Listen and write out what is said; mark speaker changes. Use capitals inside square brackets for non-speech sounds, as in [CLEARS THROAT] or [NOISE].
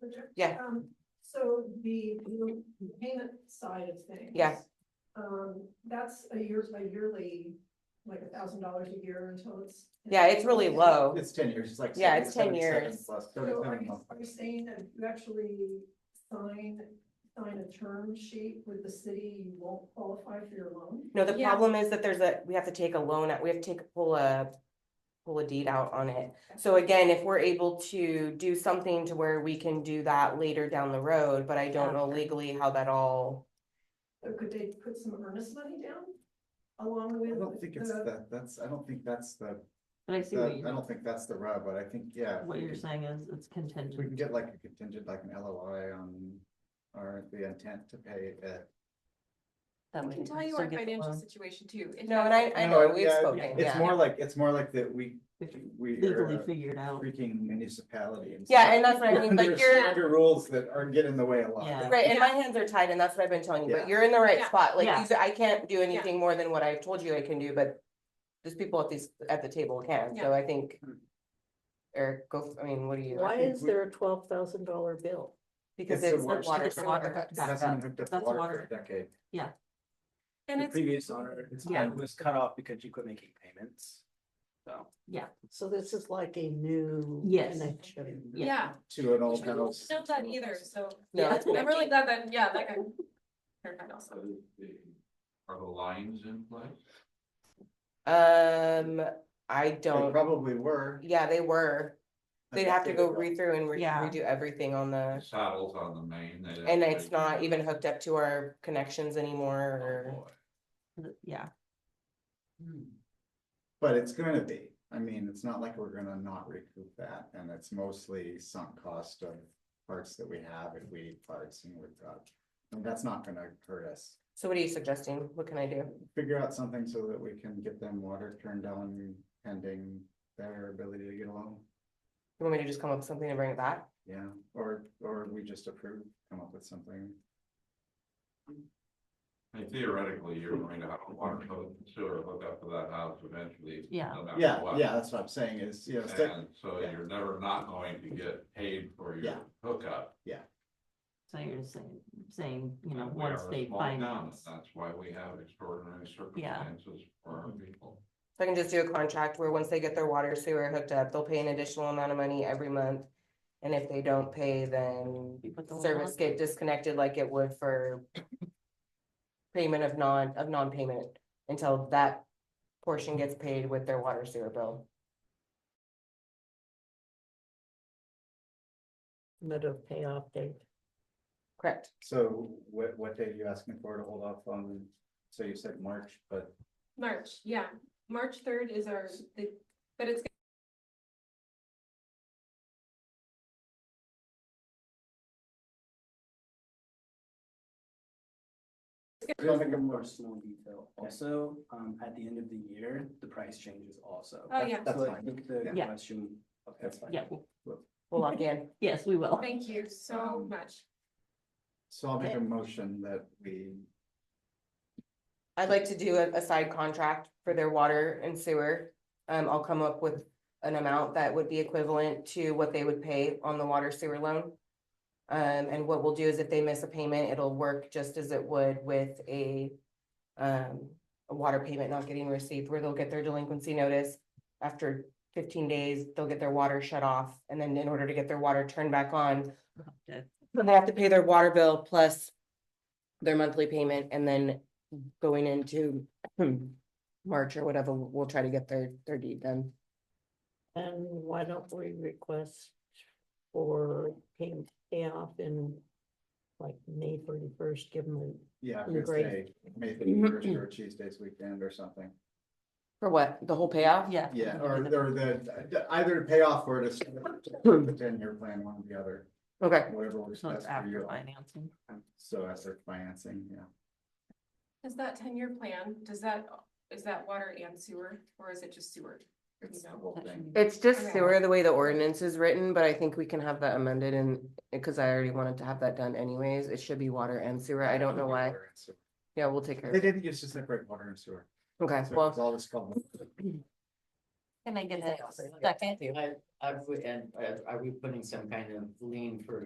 Speaker 1: Ginger?
Speaker 2: Yeah.
Speaker 1: Um, so the the payment side of things.
Speaker 2: Yeah.
Speaker 1: Um, that's a years by yearly, like a thousand dollars a year until it's.
Speaker 2: Yeah, it's really low.
Speaker 3: It's ten years, it's like.
Speaker 2: Yeah, it's 10
Speaker 3: 77
Speaker 2: years.
Speaker 3: plus
Speaker 1: So are
Speaker 3: 37
Speaker 1: you,
Speaker 3: months.
Speaker 1: are you saying that if you actually sign, sign a term sheet with the city, you won't qualify for your loan?
Speaker 2: No, the
Speaker 4: Yeah.
Speaker 2: problem is that there's a, we have to take a loan, out. we have to take, pull a, pull a deed out on it. So again, if we're able to do something to where we can do that later down the road, but I don't know legally how that all.
Speaker 1: Or could they put some earnest money down along
Speaker 3: I
Speaker 1: with?
Speaker 3: don't think it's
Speaker 1: the-
Speaker 3: that, that's, I don't think that's the,
Speaker 5: But I see
Speaker 3: the-
Speaker 5: what
Speaker 3: I
Speaker 5: you,
Speaker 3: don't think that's the rub, but I think, yeah. if
Speaker 5: what
Speaker 3: we
Speaker 5: you're
Speaker 3: could-
Speaker 5: saying is it's
Speaker 3: If we
Speaker 5: contingent.
Speaker 3: can get like a contingent, like an LOI on, or the intent to pay it.
Speaker 5: that
Speaker 6: We
Speaker 5: way
Speaker 6: can
Speaker 5: they
Speaker 6: tell you
Speaker 5: still
Speaker 6: our
Speaker 5: get the
Speaker 6: financial
Speaker 5: loan.
Speaker 6: situation too. It
Speaker 2: No, and
Speaker 6: has-
Speaker 2: I, I
Speaker 3: No,
Speaker 2: know, we've
Speaker 3: yeah,
Speaker 2: spoken,
Speaker 3: It's
Speaker 2: yeah.
Speaker 3: more like, it's more like that we,
Speaker 5: If you
Speaker 3: we are
Speaker 5: Legally
Speaker 3: a
Speaker 5: figured out.
Speaker 3: freaking municipality. and
Speaker 2: Yeah,
Speaker 3: stuff.
Speaker 2: and that's what I mean,
Speaker 3: There's
Speaker 2: like you're,
Speaker 3: Under rules that are get in the way a
Speaker 5: Yeah.
Speaker 3: lot.
Speaker 2: right, and my
Speaker 6: Yeah.
Speaker 2: hands are tied and that's what I've been telling you,
Speaker 3: Yeah.
Speaker 2: but you're in the right
Speaker 6: Yeah.
Speaker 2: spot, like,
Speaker 5: Yeah.
Speaker 2: you said, I can't do anything more than what I've told you I can do, but. There's people at these, at the table can, so
Speaker 6: Yeah.
Speaker 2: I think.
Speaker 3: Hmm.
Speaker 2: Eric, go, I mean, what do you?
Speaker 3: Why is there
Speaker 7: a twelve thousand dollar bill?
Speaker 2: Because
Speaker 3: the
Speaker 2: it's
Speaker 3: worst.
Speaker 2: water.
Speaker 5: It's water.
Speaker 3: It hasn't been hooked up to
Speaker 5: That's
Speaker 3: water for a
Speaker 5: water.
Speaker 3: decade.
Speaker 6: And
Speaker 8: The
Speaker 6: it's,
Speaker 8: previous owner it's-
Speaker 5: Yeah.
Speaker 8: was cut off because you quit making payments. So.
Speaker 7: So this is like a new.
Speaker 5: Yes.
Speaker 7: Connection.
Speaker 6: yeah,
Speaker 3: To an old
Speaker 6: I don't
Speaker 3: house.
Speaker 6: know that either, so
Speaker 2: No.
Speaker 6: yeah, I'm really glad that, yeah, that got clarified also.
Speaker 9: Are the lines in place?
Speaker 2: Um, I
Speaker 3: They
Speaker 2: don't,
Speaker 3: probably were.
Speaker 2: yeah, they were,
Speaker 3: I
Speaker 2: they'd
Speaker 3: think
Speaker 2: have to
Speaker 3: they
Speaker 2: go
Speaker 3: were.
Speaker 2: read through and re-
Speaker 5: Yeah.
Speaker 2: redo everything on
Speaker 9: The
Speaker 2: the.
Speaker 9: Saddles on the main. they-
Speaker 2: And it's
Speaker 9: they-
Speaker 2: not even hooked up to our connections
Speaker 9: Oh,
Speaker 2: anymore,
Speaker 9: boy.
Speaker 5: Yeah,
Speaker 3: Hmm. But it's gonna be, I mean, it's not like we're gonna not recoup that, and it's mostly sunk cost of parts that we have if we parts and we've got. And that's not gonna hurt us,
Speaker 2: so what are you suggesting, what can I do?
Speaker 3: figure out something so that we can get them water turned on pending their ability to get along.
Speaker 2: You want me to just come up with something and bring it back?
Speaker 3: Yeah, or, or we just approve, come up with something.
Speaker 9: And Theoretically, you're going to have a water code sewer hook up to that house eventually.
Speaker 5: Yeah.
Speaker 9: no matter
Speaker 3: Yeah,
Speaker 9: what.
Speaker 3: yeah, that's what I'm saying is, you know, stick,
Speaker 9: And so
Speaker 3: yeah.
Speaker 9: you're never not going to get paid for
Speaker 3: Yeah.
Speaker 9: your hookup.
Speaker 5: so you're just saying, saying, you know,
Speaker 9: And we
Speaker 5: once
Speaker 9: are a
Speaker 5: they
Speaker 9: small town,
Speaker 5: find
Speaker 9: and
Speaker 5: out.
Speaker 9: That's why we have extraordinary circumstances for our people.
Speaker 2: So I can just do a contract where once they get their water sewer hooked up, they'll pay an additional amount of money every month. And if they don't pay, then
Speaker 5: You put the lien
Speaker 2: service
Speaker 5: on?
Speaker 2: get disconnected like it would for. Payment of non, of non-payment until that portion gets paid with their water sewer bill.
Speaker 7: Method of payoff date.
Speaker 2: Correct.
Speaker 3: so what, what day are you asking for to hold off on? So you said March, but
Speaker 6: March, yeah, March third is our, the- but it's
Speaker 8: I don't think I'm personal detail. Also, um, at the end of the year, the price changes also.
Speaker 6: Oh, yeah.
Speaker 3: That's
Speaker 8: So I
Speaker 3: fine.
Speaker 8: think the
Speaker 5: Yeah.
Speaker 8: question. okay,
Speaker 3: That's fine.
Speaker 5: Yeah, well,
Speaker 2: We'll lock in.
Speaker 5: yes, we will.
Speaker 6: Thank you so much.
Speaker 3: So I'll make a
Speaker 5: Okay.
Speaker 3: motion that we
Speaker 2: I'd like to do a, a side contract for their water and sewer. Um, I'll come up with an amount that would be equivalent to what they would pay on the water sewer loan. Um, and what we'll do is if they miss a payment, it'll work just as it would with a, um, a water payment not getting received, where they'll get their delinquency notice. After fifteen days, they'll get their water shut off, and then in order to get their water turned back on,
Speaker 5: Okay.
Speaker 2: then they have to pay their water bill plus their monthly payment and then going into [CLEARS THROAT] March or whatever, we'll try to get their, their deed done.
Speaker 7: And why don't we request for payment payoff in like May thirty first, give them the
Speaker 3: Yeah,
Speaker 7: Mm,
Speaker 3: because
Speaker 7: great.
Speaker 3: they made the first or Cheese Days weekend or something.
Speaker 2: For what? The whole payoff?
Speaker 5: Yeah.
Speaker 3: Yeah, or or the, either to pay off or to s- the ten-year plan, one or the other,
Speaker 2: Okay,
Speaker 3: whatever works
Speaker 5: So
Speaker 3: best
Speaker 5: it's
Speaker 3: for
Speaker 5: after
Speaker 3: you.
Speaker 5: financing.
Speaker 3: So as their financing, yeah.
Speaker 6: Is that ten-year plan, does that, is that water and sewer, or is it just sewer?
Speaker 3: It's the
Speaker 6: No,
Speaker 3: whole thing.
Speaker 2: it's just
Speaker 6: Okay.
Speaker 2: sewer, the way the ordinance is written, but I think we can have that amended and, because I already wanted to have that done anyways, it should be water and sewer, I don't know why.
Speaker 3: Water and sewer.
Speaker 2: Yeah, we'll take care of
Speaker 3: They
Speaker 2: it.
Speaker 3: didn't used to separate water and sewer.
Speaker 2: Okay,
Speaker 3: So it's
Speaker 2: well,
Speaker 3: all this called.
Speaker 10: Can I get a second? Are, are we putting some kind of lien for